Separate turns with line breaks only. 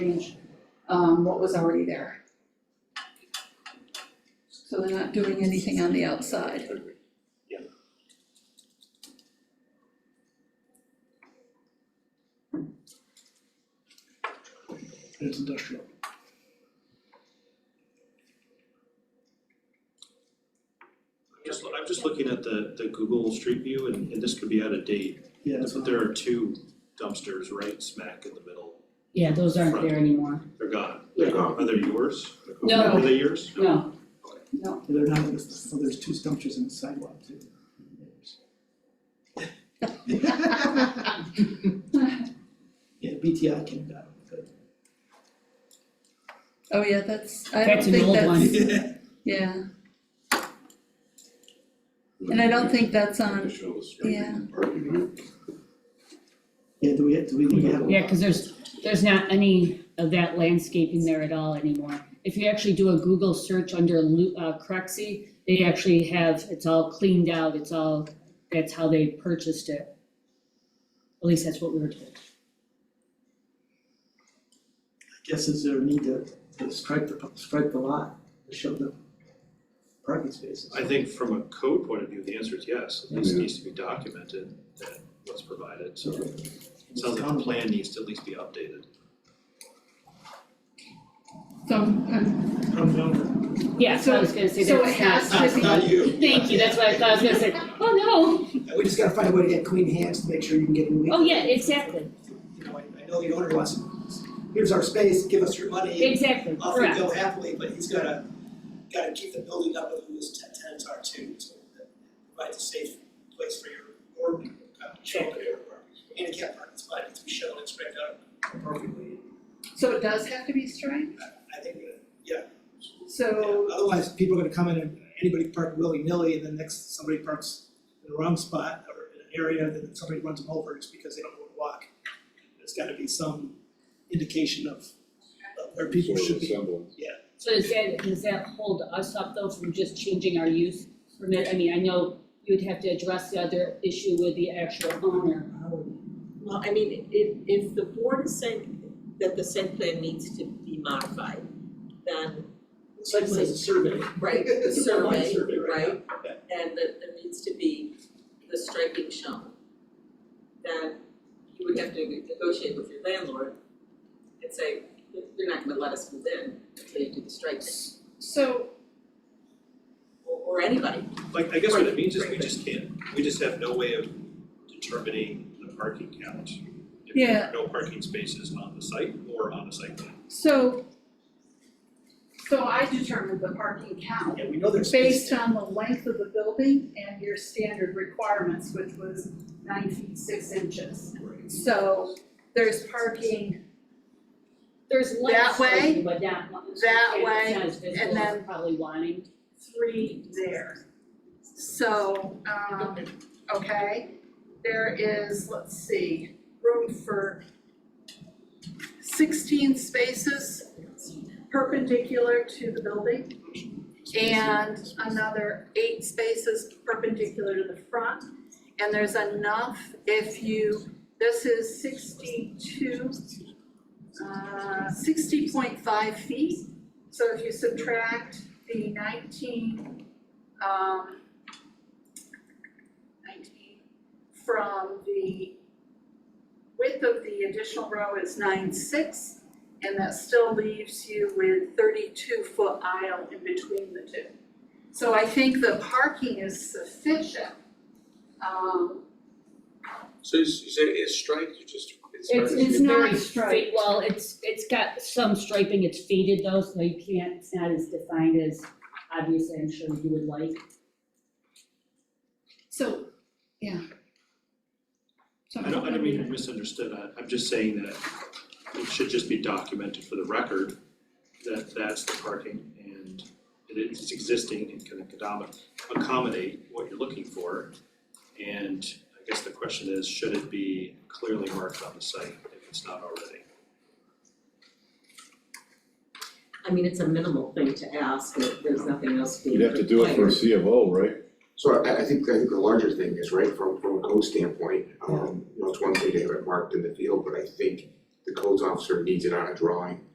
change, um, what was already there. So they're not doing anything on the outside.
It's industrial.
Just, I'm just looking at the, the Google Street View, and, and this could be out of date,
Yeah, it's
but
not,
there are two dumpsters right smack in the middle.
Yeah, those aren't there anymore.
They're gone.
Yeah.
Are they yours?
No.
Are they yours?
No,
they're not, listed, so there's two dumpsters in the sidewalk too. Yeah, BTI came down with it.
Oh, yeah, that's, I don't
that's an
think
old
that's,
one.
yeah, and I don't think that's on, yeah.
Yeah, do we, do we need to have?
Yeah, cause there's, there's not any of that landscaping there at all anymore. If you actually do a Google search under Lu- uh, Cruxy, they actually have, it's all cleaned out, it's all, that's how they purchased it. At least that's what we were told.
Guess is there a need to, to strike the, strike the lot, to show the parking spaces?
I think from a code point of view, the answer is yes, at least it needs to be documented that what's provided, so. it Sounds like the plan needs to at least be updated.
So, um,
I'm down with it.
Yeah, so I was gonna say
so it
that's not.
has to be.
you.
Thank you, that's what I thought, I was gonna say, oh
We just gotta find a way to get clean hands to make sure you can get in.
no, oh yeah, exactly,
You know, I, I know the owner wants, here's our space, give us your money,
exactly,
off we
correct.
go happily, but he's gotta, gotta keep the building up with who his ten- tenants are too, so that provides a safe place for your, or, uh, children, or handicap parking spot, needs to be shown and spread out appropriately.
So it does have to be striped,
I think, uh,
so,
yeah, otherwise people are gonna come in and anybody park willy-nilly and then next, somebody parks in the wrong spot or in an area, then somebody runs them over just because they don't know where to walk. There's gotta be some indication of, of where people should be.
So does that, does that hold us up though from just changing our use permit? I mean, I know you'd have to address the other issue with the actual owner.
Well, I mean, if, if the board is saying that the site plan needs to be modified, then,
Site plan is a survey.
right, the
It's a online
survey,
survey right
right? And that there needs to be the striking shown. Then you would have to negotiate with your landlord and say, you're not gonna let us move in until you do the striking,
so,
or, or anybody.
Like, I guess what it means is we just can't, we just have no way of determining the parking count. If there are no parking spaces on the site or on the site plan.
so. So I determined the parking count
Yeah, we know there's space.
based on the length of the building and your standard requirements, which was nine feet six inches. So there's parking,
There's
That way?
landscaping, but not one,
That way,
it's not as visible as
then-
probably wanting.
three there. So, um, okay, there is, let's see, room for sixteen spaces perpendicular to the building and another eight spaces perpendicular to the front. And there's enough if you, this is sixty-two, uh, sixty point five feet. So if you subtract the nineteen, um, nineteen from the width of the additional row is nine six, and that still leaves you with thirty-two foot aisle in between the two. So I think the parking is sufficient. Um,
So you s- you say it's striped, you just, it's.
It's,
hard to
it's
see.
not,
Very striped.
fa- well, it's, it's got some striping, it's faded though, so you can't, it's not as defined as obviously I'm sure you would like.
so, yeah. So
I don't, I don't mean to misunderstood, I, I'm just saying that it should just be documented for the record that that's the parking and it is existing and can accommodate, accommodate what you're looking for. And I guess the question is, should it be clearly marked on the site if it's not already?
I mean, it's a minimal thing to ask, if there's nothing else being
You'd have to do it for a
required.
C of O, right?
So I, I think, I think the larger thing is, right, from, from a code standpoint, um, you know, it's one thing to have it marked in the field, but I think the codes officer needs it on a drawing.